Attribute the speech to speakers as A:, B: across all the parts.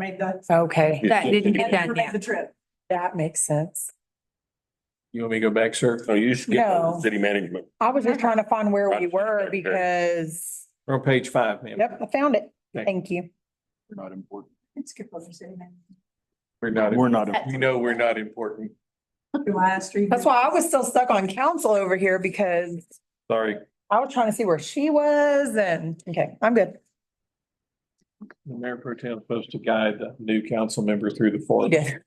A: made the,
B: Okay,
C: Yeah.
D: That didn't
A: had
D: get
A: to
D: done
A: make
D: yet.
A: the trip.
B: that makes sense.
C: You want me to go back, sir?
E: No, you skip
B: No.
E: city management.
B: I was just trying to find where we were
E: Gotcha.
B: because,
C: We're on page five, ma'am.
B: yep, I found it.
C: Okay.
B: Thank you.
F: Not important.
A: Let's skip over city manager.
C: We're not,
F: We're not, important.
C: we know we're not important.
A: Do I ask you-
B: That's why I was still stuck on council over here because
C: Sorry.
B: I was trying to see where she was and, okay, I'm good.
C: The mayor pro tem is supposed to guide the new council member through the
B: He
C: forest.
B: did.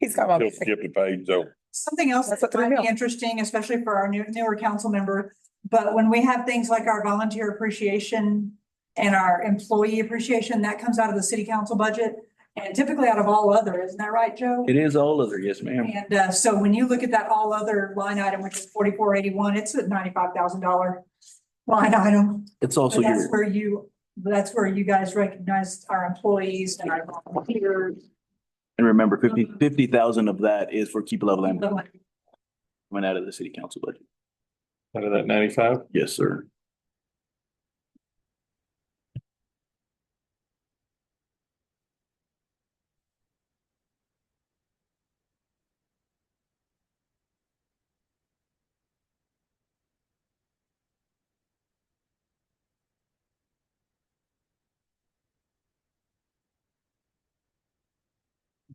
B: He's got my,
E: He'll skip the page, so.
A: Something else
B: That's
A: that
B: what they're
A: might be
B: about.
A: interesting, especially for our new- newer council member, but when we have things like our volunteer appreciation and our employee appreciation, that comes out of the city council budget and typically out of all other, isn't that right, Joe?
F: it is all other, yes, ma'am.
A: And uh, so when you look at that all other line item, which is forty-four eighty-one, it's a ninety-five thousand dollar line item.
F: It's
A: But
F: also
A: that's
F: your,
A: where you, that's where you guys recognized our employees and our volunteers.
F: and remember fifty, fifty thousand of that is for keep level and
A: But
F: coming out of the city council budget.
C: Out of that ninety-five?
F: Yes, sir.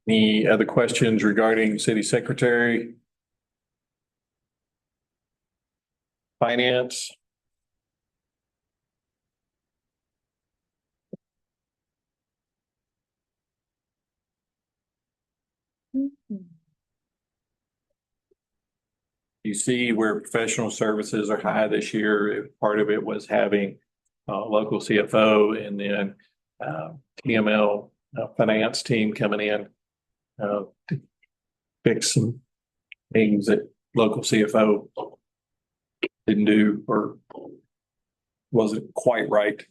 C: Any other questions regarding city secretary? Finance? You see where professional services are high this year. Part of it was having uh local CFO and then uh TML uh, finance team coming in uh, to fix some things that local CFO didn't do or wasn't quite right.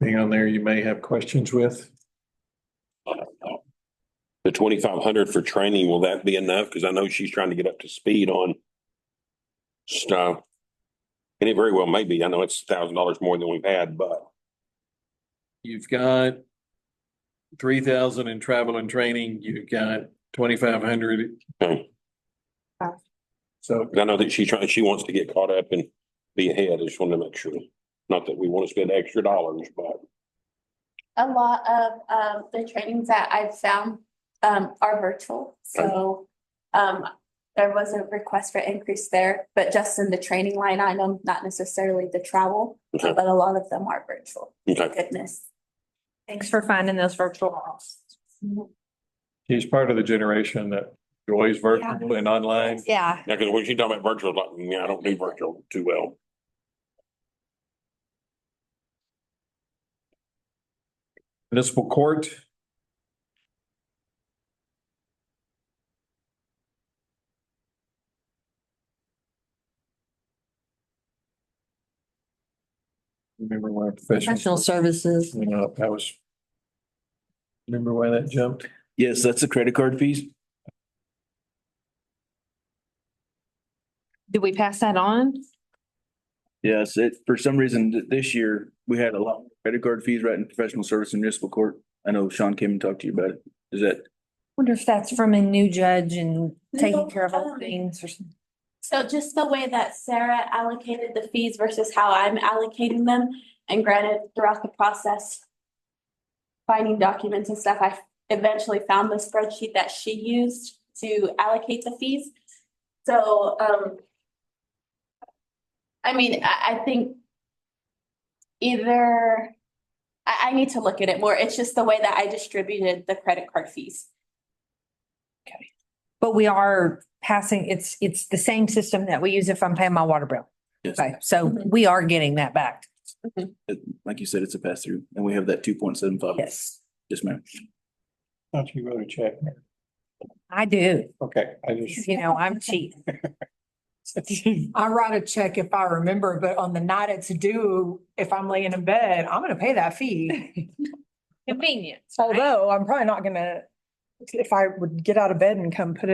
C: Being on there, you may have questions with.
E: The twenty-five hundred for training, will that be enough? Because I know she's trying to get up to speed on stuff. And it very well may be. I know it's a thousand dollars more than we've had, but
C: You've got three thousand in travel and training, you've got twenty-five hundred.
E: Okay.
C: So
E: I know that she trying, she wants to get caught up and be ahead. I just wanted to make sure. Not that we want to spend extra dollars, but
G: A lot of um the trainings that I've found um are virtual, so um there was a request for increase there, but just in the training line item, not necessarily the travel,
E: Okay.
G: but a lot of them are virtual,
E: okay.
G: goodness.
D: Thanks for finding those virtual halls.
C: she's part of the generation that enjoys virtual and online.
D: Yeah.
E: Now, because when she talking about virtual, like, yeah, I don't do virtual too well.
C: Municipal court. Remember when our
D: Professional
C: professional,
D: services.
C: you know, that was. Remember why that jumped?
F: Yes, that's the credit card fees.
D: Did we pass that on?
F: Yes, it, for some reason, th- this year, we had a lot of credit card fees right in professional service and municipal court. I know Sean came and talked to you about it. Is that
D: Wonder if that's from a new judge and taking care of all
G: No.
D: things or something.
G: So just the way that Sarah allocated the fees versus how I'm allocating them, and granted, throughout the process. Finding documents and stuff, I eventually found the spreadsheet that she used to allocate the fees. So, um. I mean, I, I think. Either. I, I need to look at it more. It's just the way that I distributed the credit card fees.
D: But we are passing, it's, it's the same system that we use if I'm paying my water bill.
F: Yes.
D: Okay, so we are getting that back.
F: like you said, it's a pass through and we have that two point seven five.
D: Yes.
F: Yes, ma'am.
C: Thought you wrote a check.
D: I do,
C: Okay, I just.
D: you know, I'm cheap.
B: I write a check if I remember, but on the night it's due, if I'm laying in bed, I'm gonna pay that fee.
D: Convenience. right?
B: Although I'm probably not gonna, if I would get out of bed and come put it